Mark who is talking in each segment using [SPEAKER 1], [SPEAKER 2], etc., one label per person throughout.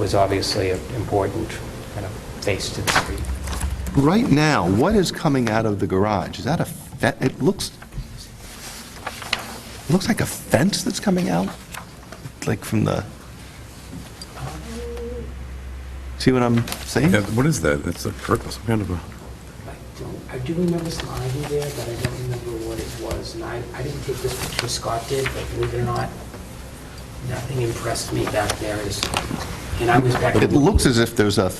[SPEAKER 1] was obviously an important kind of face to the street.
[SPEAKER 2] Right now, what is coming out of the garage? Is that a, that, it looks, it looks like a fence that's coming out, like from the, see what I'm saying?
[SPEAKER 3] Yeah, what is that? That's a purpose, some kind of a,
[SPEAKER 1] I don't, I do remember some ivy there, but I don't remember what it was, and I, I didn't take this picture, Scott did, but believe it or not, nothing impressed me back there as, and I was back.
[SPEAKER 2] It looks as if there's a,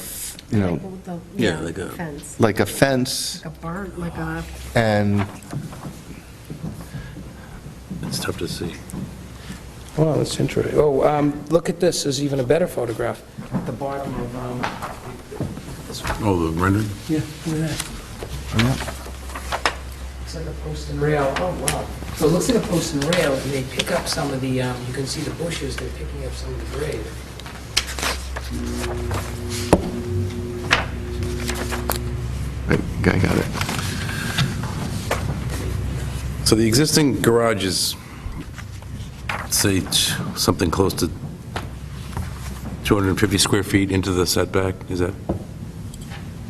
[SPEAKER 2] you know,
[SPEAKER 4] Like the-
[SPEAKER 3] Yeah, like a-
[SPEAKER 4] Fence,
[SPEAKER 2] like a fence
[SPEAKER 4] like a barn, like a,
[SPEAKER 2] and,
[SPEAKER 3] it's tough to see.
[SPEAKER 5] Well, that's interesting. Oh, um, look at this, there's even a better photograph.
[SPEAKER 1] The bottom of, um, this one,
[SPEAKER 3] Oh, the rendering?
[SPEAKER 5] Yeah, look at that.
[SPEAKER 1] looks like a post and rail, oh, wow. So it looks like a post and rail, and they pick up some of the, um, you can see the bushes, they're picking up some of the grade.
[SPEAKER 2] I I got it.
[SPEAKER 3] So the existing garage is, say, t- something close to 250 square feet into the setback? Is that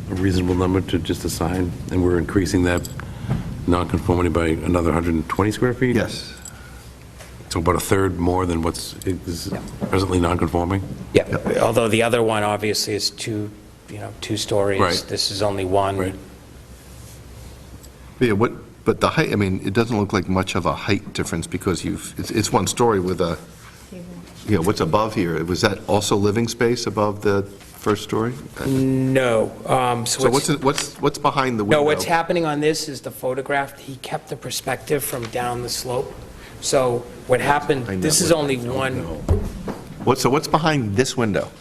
[SPEAKER 3] a reasonable number to just assign? And we're increasing that nonconformity by another 120 square feet?
[SPEAKER 2] Yes.
[SPEAKER 3] So about a third more than what's is presently nonconforming.
[SPEAKER 1] Yeah, although the other one obviously is two, you know, two stories.
[SPEAKER 3] Right.
[SPEAKER 1] This is only one.
[SPEAKER 3] Right.
[SPEAKER 2] Yeah, what, but the height, I mean, it doesn't look like much of a height difference because you've, it's, it's one story with a, you know, what's above here, was that also living space above the first story?
[SPEAKER 5] No, um, so
[SPEAKER 2] So
[SPEAKER 5] it's,
[SPEAKER 2] what's, what's, what's behind the window?
[SPEAKER 5] no, what's happening on this is the photograph, he kept the perspective from down the slope. So what happened,
[SPEAKER 2] I know
[SPEAKER 5] this is
[SPEAKER 2] what-
[SPEAKER 5] only one,
[SPEAKER 2] What, so what's behind this window?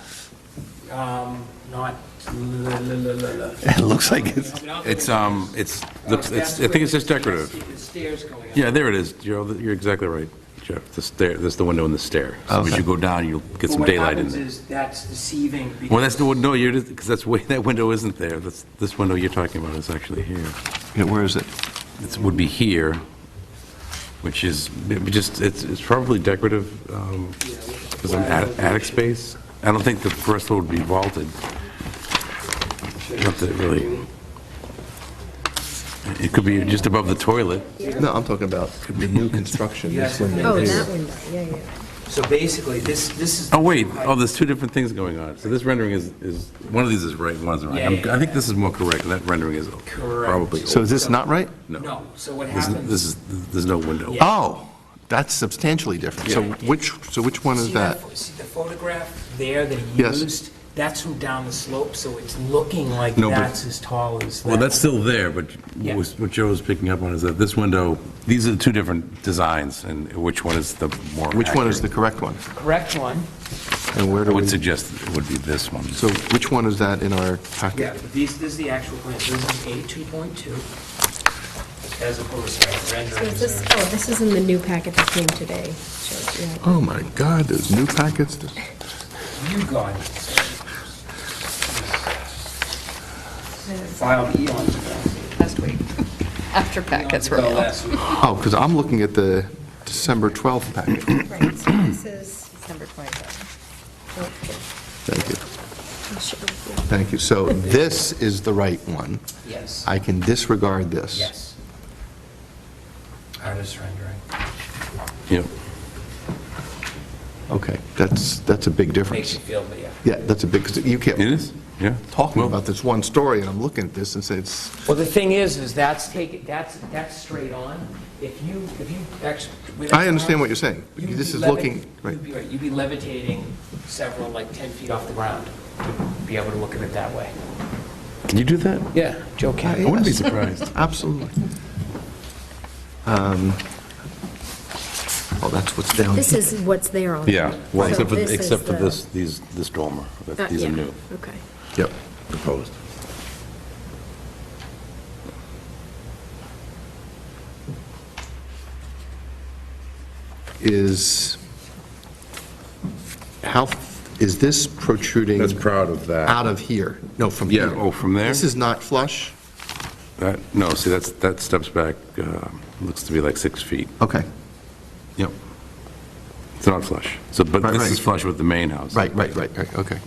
[SPEAKER 5] um, not, la, la, la, la, la.
[SPEAKER 2] It looks like it's,
[SPEAKER 3] It's, um, it's, it's- I think it's just decorative.
[SPEAKER 5] The Stairs going up.
[SPEAKER 3] Yeah, there it is. You're, you're exactly right, Jeff. The stair, that's the window and the stair. So as
[SPEAKER 2] Okay.
[SPEAKER 3] you go down, you'll get
[SPEAKER 5] But
[SPEAKER 3] some
[SPEAKER 5] what
[SPEAKER 3] daylight in
[SPEAKER 5] happens
[SPEAKER 3] there.
[SPEAKER 5] is that's deceiving because.
[SPEAKER 3] Well, that's the, one- no, you're, because that's, way- that window isn't there. That's, this window you're talking about is actually here.
[SPEAKER 2] yeah, where is it?
[SPEAKER 3] It would be here, which is, it would just, it's, it's probably decorative, um, as an attic attic space. I don't think the first floor would be vaulted. Not that it really. It could be just above the toilet.
[SPEAKER 2] No, I'm talking about the new construction, this window
[SPEAKER 4] oh,
[SPEAKER 2] here.
[SPEAKER 4] that window, yeah, yeah.
[SPEAKER 5] So basically, this, this is.
[SPEAKER 3] Oh, wait, oh, there's two different things going on. So this rendering is, is, one of these is right, one is wrong.
[SPEAKER 5] Yeah,
[SPEAKER 3] I'm-
[SPEAKER 5] yeah,
[SPEAKER 3] I think this is more correct, and that rendering is
[SPEAKER 5] Correct.
[SPEAKER 3] probably.
[SPEAKER 2] So is this not right?
[SPEAKER 5] No, so what
[SPEAKER 3] This is-
[SPEAKER 5] happens.
[SPEAKER 3] This is, there's no window.
[SPEAKER 5] Yeah.
[SPEAKER 2] Oh, that's substantially different. So which, so which one is
[SPEAKER 5] See
[SPEAKER 2] that?
[SPEAKER 5] pho- See the photograph there that he
[SPEAKER 2] Yes.
[SPEAKER 5] used? That's from down the slope, so it's looking like
[SPEAKER 3] No, but-
[SPEAKER 5] that's as tall as that.
[SPEAKER 3] Well, that's still there, but
[SPEAKER 5] Yeah.
[SPEAKER 3] what was- what Joe was picking up on is that this window, these are the two different designs, and which one is the more
[SPEAKER 2] Which one is the
[SPEAKER 3] accurate?
[SPEAKER 2] correct one?
[SPEAKER 5] Correct one.
[SPEAKER 2] And where
[SPEAKER 3] I
[SPEAKER 2] do we,
[SPEAKER 3] would
[SPEAKER 2] so
[SPEAKER 3] suggest it would be this one.
[SPEAKER 2] which one is that in our packet?
[SPEAKER 5] but these, this is the actual plan. This is A two point two. As opposed to
[SPEAKER 4] So is
[SPEAKER 5] renderings.
[SPEAKER 4] this,
[SPEAKER 5] or-
[SPEAKER 4] oh, this is in the new packet that came today. Sure, yeah.
[SPEAKER 2] Oh my God, there's new packets.
[SPEAKER 5] You got it.
[SPEAKER 4] There's-
[SPEAKER 5] Filed eons ago.
[SPEAKER 6] last week, after packets were
[SPEAKER 5] Well,
[SPEAKER 6] mailed.
[SPEAKER 5] last week.
[SPEAKER 2] Oh, because I'm looking at the December 12th
[SPEAKER 3] Oh.
[SPEAKER 2] packet.
[SPEAKER 4] Right, so this is, oh,
[SPEAKER 6] December 25th.
[SPEAKER 4] okay,
[SPEAKER 2] Thank you,
[SPEAKER 4] I'm sure, yeah.
[SPEAKER 2] thank you. So this is the right one.
[SPEAKER 5] Yes,
[SPEAKER 2] I can disregard this.
[SPEAKER 5] yes. Artist rendering.
[SPEAKER 3] Yep.
[SPEAKER 2] Okay, that's, that's a big
[SPEAKER 5] Makes
[SPEAKER 2] difference.
[SPEAKER 5] you feel, but yeah.
[SPEAKER 2] Yeah, that's a big, 'cause you
[SPEAKER 3] It
[SPEAKER 2] can't
[SPEAKER 3] is? Yeah?
[SPEAKER 2] talk
[SPEAKER 3] Well,
[SPEAKER 2] about this one story, and I'm looking at this and say it's,
[SPEAKER 5] Well, the thing is, is that's take, that's, that's straight on. If you, if you actually.
[SPEAKER 2] I understand what you're saying.
[SPEAKER 5] You'd
[SPEAKER 2] This
[SPEAKER 5] be
[SPEAKER 2] is
[SPEAKER 5] levi-
[SPEAKER 2] looking, right,
[SPEAKER 5] You'd be, right, you'd be levitating several, like 10 feet off the ground, to be able to look at it that way.
[SPEAKER 3] Can you do that?
[SPEAKER 5] Yeah, Joe Cat.
[SPEAKER 3] I wouldn't be surprised.
[SPEAKER 2] absolutely. Um, Oh, that's what's down
[SPEAKER 4] This
[SPEAKER 2] here.
[SPEAKER 4] is what's there on.
[SPEAKER 3] Yeah, well,
[SPEAKER 4] So
[SPEAKER 3] except for,
[SPEAKER 4] this is
[SPEAKER 3] except for
[SPEAKER 4] the-
[SPEAKER 3] this, these, this dormer. that-
[SPEAKER 4] uh,
[SPEAKER 3] These are
[SPEAKER 4] yeah,
[SPEAKER 3] new.
[SPEAKER 4] Okay.
[SPEAKER 2] Yep, proposed. Is, how, is this protruding?
[SPEAKER 3] That's proud of that.
[SPEAKER 2] Out of here? No, from
[SPEAKER 3] Yeah,
[SPEAKER 2] here.
[SPEAKER 3] oh, from there?
[SPEAKER 2] This is not flush?
[SPEAKER 3] That, no, see, that's, that steps back, uh, looks to be like six feet.
[SPEAKER 2] Okay,
[SPEAKER 3] Yep. It's not flush. So, but
[SPEAKER 2] Right,
[SPEAKER 3] this
[SPEAKER 2] right.
[SPEAKER 3] is flush with the main house.
[SPEAKER 2] right, right, right, right, okay.